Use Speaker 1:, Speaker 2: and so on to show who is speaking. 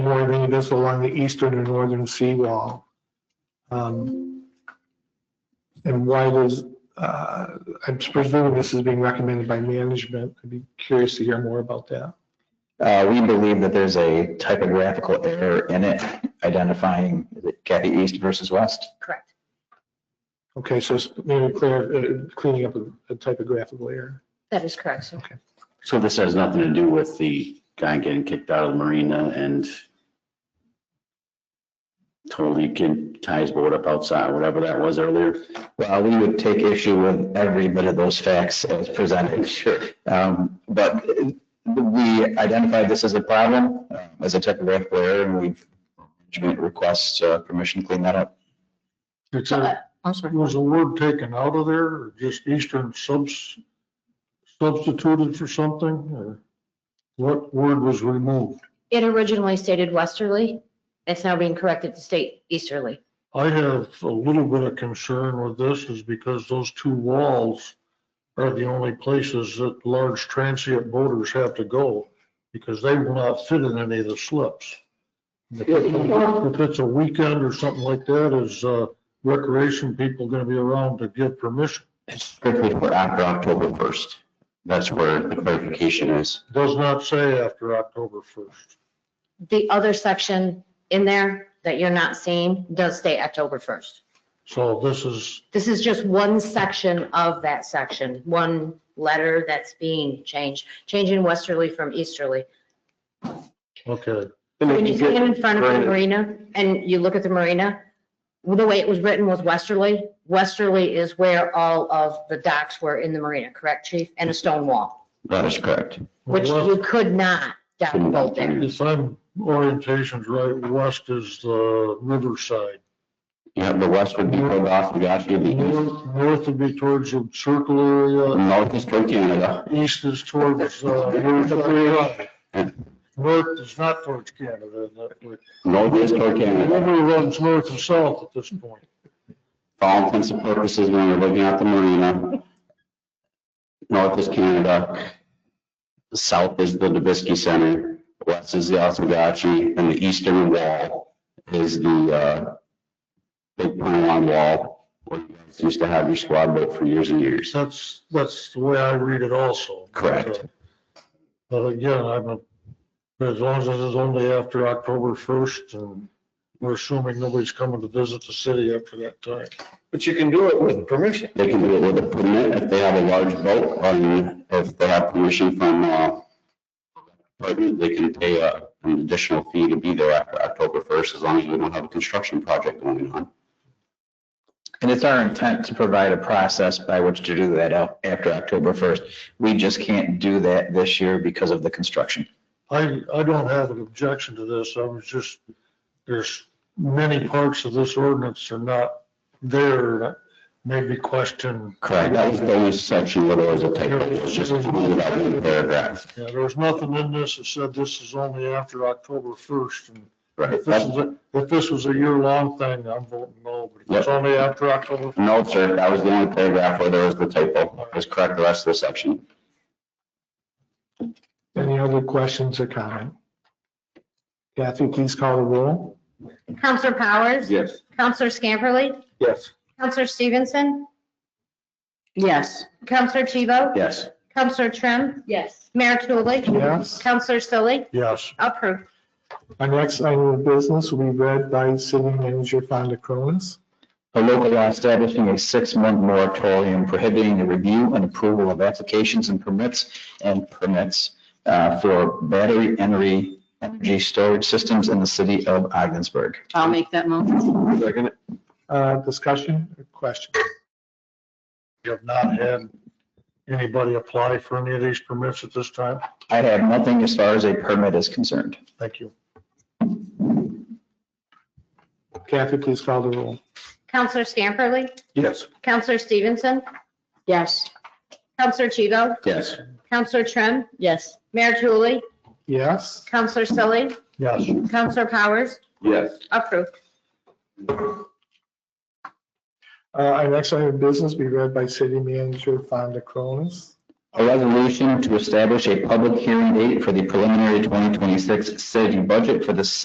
Speaker 1: this along the eastern and northern seawall. Um, And why does, uh, I'm presuming this is being recommended by management. I'd be curious to hear more about that.
Speaker 2: Uh, we believe that there's a typographical error in it identifying Kathy East versus West.
Speaker 3: Correct.
Speaker 1: Okay, so it's maybe clear, uh, cleaning up a- a typographical error.
Speaker 3: That is correct, sir.
Speaker 4: So this has nothing to do with the guy getting kicked out of the marina and totally kid ties boat up outside, whatever that was earlier.
Speaker 2: Well, we would take issue with every bit of those facts as presented. Sure. Um, but uh, we identified this as a problem, uh, as a typographical error, and we management requests uh, permission to clean that up.
Speaker 5: It's
Speaker 3: So,
Speaker 5: a,
Speaker 3: uh, I'm sorry.
Speaker 5: was the word taken out of there or just Eastern subs, substituted for something or what word was removed?
Speaker 3: It originally stated westerly. It's now being corrected to state easterly.
Speaker 5: I have a little bit of concern with this is because those two walls are the only places that large transient boaters have to go because they will not fit in any of the slips. If it's- if it's a weekend or something like that, is uh, recreation people going to be around to give permission?
Speaker 2: It's strictly for after October 1st. That's where the clarification is.
Speaker 5: Does not say after October 1st.
Speaker 3: The other section in there that you're not seeing does state October 1st.
Speaker 5: So this is,
Speaker 3: This is just one section of that section, one letter that's being changed, changing westerly from easterly.
Speaker 5: okay,
Speaker 3: When you stand in front of the marina and you look at the marina, the way it was written was westerly. Westerly is where all of the docks were in the marina, correct, chief? And a stone wall,
Speaker 2: That is correct.
Speaker 3: which you could not dock a boat there.
Speaker 5: if I'm orientation's right, west is the riverside.
Speaker 2: Yeah, the west would be pulled off, we got you, the east,
Speaker 5: North, north would be towards the circle area,
Speaker 2: north is toward Canada.
Speaker 5: east is towards, uh, Riverside Drive. North is not towards Canada, that way.
Speaker 2: North is toward
Speaker 5: The
Speaker 2: Canada.
Speaker 5: river runs north and south at this point.
Speaker 2: For all intents and purposes, when you're looking at the marina, north is Canada, south is the Dubisky Center, west is the Oswegatchie, and the eastern wall is the, uh, big pylon wall, where you guys used to have your squad boat for years and years.
Speaker 5: That's, that's the way I read it also. uh,
Speaker 2: Correct.
Speaker 5: But again, I'm, a- as long as it's only after October first, and we're assuming nobody's coming to visit the city after that time.
Speaker 6: But you can do it with permission.
Speaker 2: They can do it with a permit if they have a large boat, and if they have permission from, uh, department, they can pay uh, an additional fee to be there after October first, as long as we don't have a construction project going on.
Speaker 7: And it's our intent to provide a process by which to do that out- after October 1st. We just can't do that this year because of the construction.
Speaker 5: I, I don't have an objection to this. I was just, there's many parts of this ordinance are not there. that Made me question.
Speaker 2: Correct. That was the only section where there was a typo, it was just included that one paragraph.
Speaker 5: Yeah, there was nothing in this that said this is only after October first. And
Speaker 2: Right.
Speaker 5: if this is, a- if this was a year-long thing, I'm voting no, but if it's
Speaker 2: Yeah.
Speaker 5: only after October,
Speaker 2: No, sir, that was the only paragraph where there was the typo, it was correct the rest of the section.
Speaker 1: Any other questions or comment? Kathy, please call the roll.
Speaker 3: Counselor Powers?
Speaker 6: Yes.
Speaker 3: Counselor Scamperly?
Speaker 6: Yes.
Speaker 3: Counselor Stevenson? Yes. Counselor Tebow?
Speaker 2: Yes.
Speaker 3: Counselor Trim? Yes. Mayor Tulley?
Speaker 1: Yes.
Speaker 3: Counselor Sully?
Speaker 5: yes.
Speaker 3: Approved.
Speaker 1: Our next item of business will be read by City Manager Fonda Cronis.
Speaker 7: A local law establishing a six-month moratorium prohibiting the review and approval of applications and permits and permits uh, for battery energy, energy storage systems in the city of Ogdensburg.
Speaker 8: I'll make that motion.
Speaker 6: Second.
Speaker 1: Uh, Discussion or question?
Speaker 5: You have not had anybody apply for any of these permits at this time?
Speaker 7: I have nothing as far as a permit is concerned.
Speaker 5: Thank you.
Speaker 1: Kathy, please call the roll.
Speaker 3: Counselor Scamperly?
Speaker 6: Yes.
Speaker 3: Counselor Stevenson?
Speaker 8: Yes.
Speaker 3: Counselor Tebow?
Speaker 6: Yes.
Speaker 3: Counselor Trim?
Speaker 8: Yes.
Speaker 3: Mayor Tulley?
Speaker 1: Yes?
Speaker 3: Counselor Sully?
Speaker 5: Yes.
Speaker 3: Counselor Powers?
Speaker 6: Yes.
Speaker 3: Approved.
Speaker 1: Uh, Our next item of business will be read by City Manager Fonda Cronis.
Speaker 7: A resolution to establish a public hearing date for the preliminary 2026 city budget for the